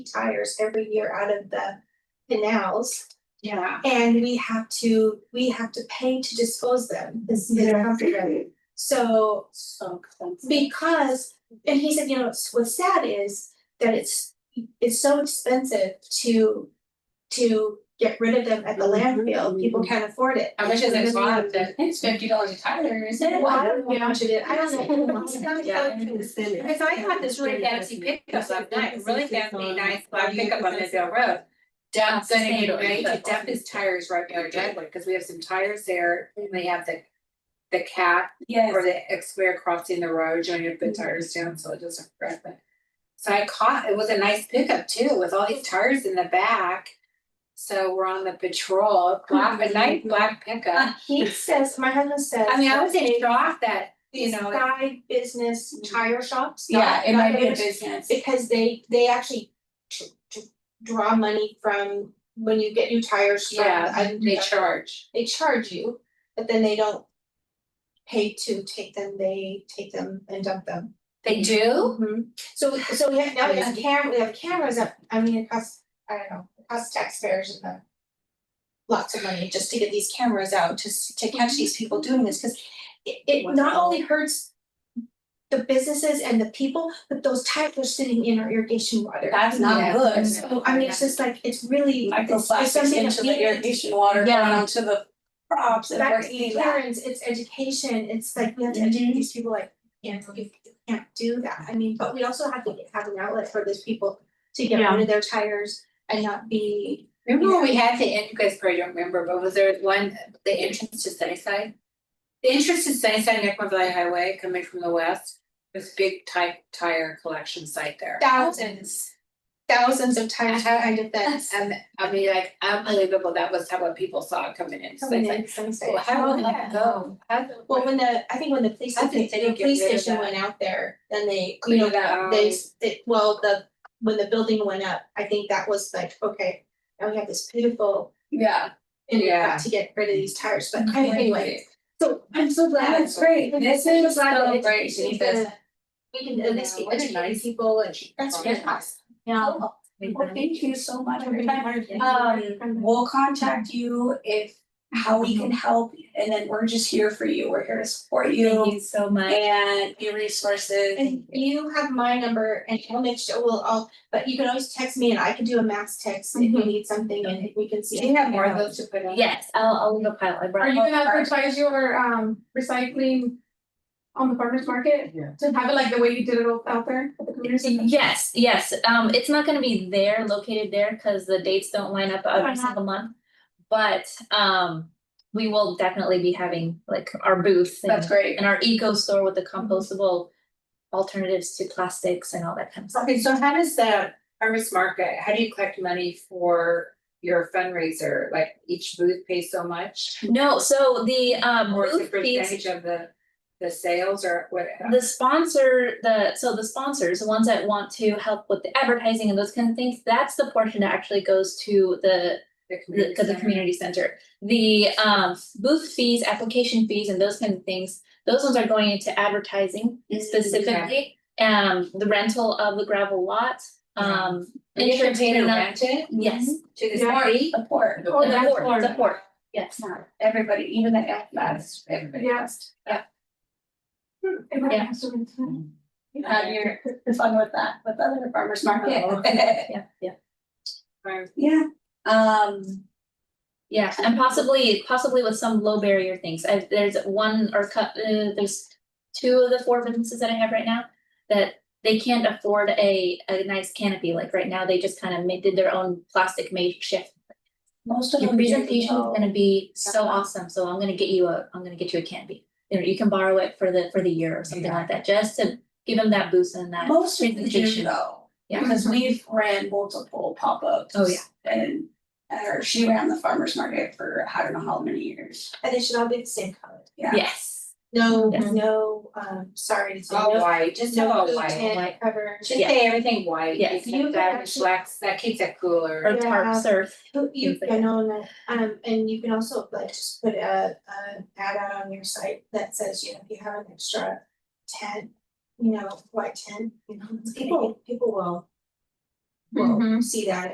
tires every year out of the canals. Yeah. And we have to, we have to pay to dispose them, this is Comfortable. So So expensive. because, and he said, you know, it's- what's sad is that it's, it's so expensive to. To get rid of them at the Mhm, landfill, people mhm. can't afford it. How much is it cost? It's fifty dollars a tire, is it? Well, I don't know how much it is, I don't know. Yeah. Because Because I had this really fancy pickup, I'm not really fancy, nice black pickup on Midvale Road. Dump's saying he ready to dump his tires right near our driveway, because we have some tires there, and they have the. The cat or Yes. the X square crossing the road, you know, you put tires down, so it doesn't crack but. So I caught, it was a nice pickup too, with all these tires in the back. So we're on the patrol, black, a nice black pickup, He says, my husband says. I mean, I was in shock that, you these know. it- Side business tire shops. Yeah, not- it not might be a business- business. Because they they actually tr- tr- draw money from when you get new tires from. Yeah, I- they charge. They charge you, but then they don't pay to take them, they take them and dump them. They do? Mhm. So so we have, now we have cam, we have cameras up, I mean, it costs, I don't know, it costs taxpayers in the lots of money just to get these cameras out, just to Mm-hmm. catch these people doing this, cause it it not only hurts the businesses and the people, but those types are sitting in our irrigation water. That's not Yeah. good. So I mean, it's just like, it's really, it's it's Microplastics something that into we the need to irrigation water Yeah. going onto the crops and we're back to eating that. parents, it's education, it's like, we have to Mm-hmm. educate these people like, you know, you can't do that, I mean, but we also have to have an outlet for these people to get Yeah. rid of their tires and not be, Remember when we had the, en- you guys probably don't remember, but was there one, the entrance to Sunnyside? The entrance to Sunnyside, Neck Valley Highway, coming from the west, this big type tire collection site there. thousands, thousands of times behind a fence. And I mean, like unbelievable, that was how what people saw coming in, so Coming it's in like, some well, state. how did that go? How did- Well, when the, I think when the police, How did the the city get police rid of station that? went out there, then they, you Cleaned know, it up. they, s- it, well, the, when the building went up, I think that was like, okay, now we have this beautiful Yeah. and we've Yeah. Mm-hmm. got to get rid of these tires, but I- anyway, so I'm so glad. That's great. This I'm is glad that so it's- great. it's She gonna- says- We can at least be Yeah, what a educating nice- people and that's That's really fantastic. awesome. Yeah. Cool. Well, thank you so much. everybody. Um, Um, we'll contact you if, how we can help, and then we're just here for you. We're here to support you you so much. and be resources. And you have my number and I'll make sure, we'll all, but you can always text me and I can do a mass text if you Mhm. need something and if we can see. Do you have more of those to put on? Yes, I'll, I'll leave a pile. I brought. Are you all gonna the cards. advertise your um recycling on the farmer's market? Yeah. To have it like the way you did it all out there? at the community center? Yes, yes, um, it's not gonna be there, located there, cause the dates don't line up Why every not? single month. But, um, we will definitely be having like our booth That's and, great. and our eco store with the compostable alternatives to plastics and all that kind of stuff. Okay, so how does the farmer's market, how do you collect money for your fundraiser? Like each booth pays so much? No, so the, um, Or is it booth fees percentage of the, the sales or what? the sponsor, the, so the sponsors, the ones that want to help with the advertising and those kind of things, that's the portion that actually goes to the the community the, to the center? community center. The um booth fees, application fees and those kind of things, those ones are going into advertising specifically. Um, the rental of the gravel lot, um. Are you gonna interest pay to in the- rent Mm-hmm. it Yes, to the Yeah. city? Support, Oh, the that's port, the Florida. port, yes. everybody, even the FMAS. That's everybody. Yes. Yeah. Everybody Yeah. has to rent it. Have your fun with that, with other farmers Oh. market. Yeah, yeah, Yeah, um, yeah, and possibly, possibly with some low barrier things. I, there's one or cut, uh, there's two of the four businesses that I have right now that they can't afford a a nice canopy. Like right now, they just kind of made, did their own plastic makeshift most of Your them. presentation is go- gonna be so Yeah. awesome, so I'm gonna get you a, I'm gonna get you a candy. You know, you can borrow it for the, for the year or something like that, just to give them that boost and that. Most of the do presentation. though, Yeah. because we've ran multiple pop-ups. Oh, yeah. And, or she ran the farmer's market for I don't know how many years, And they should all be the same color. yeah. Yes. No, Yes. no, um, sorry, to say, All no, white, just have no all blue white. tint cover. Just Yeah. say everything white, Yes. because You that can actually- reflects, that keeps it cooler. Or tarp Yeah. surf. Who- You Things like can own that, um, and you can also like just put a, a ad out on your site that says, you know, if you have an extra tent, you know, white tent, you know, people, people will. Mm-hmm. will see that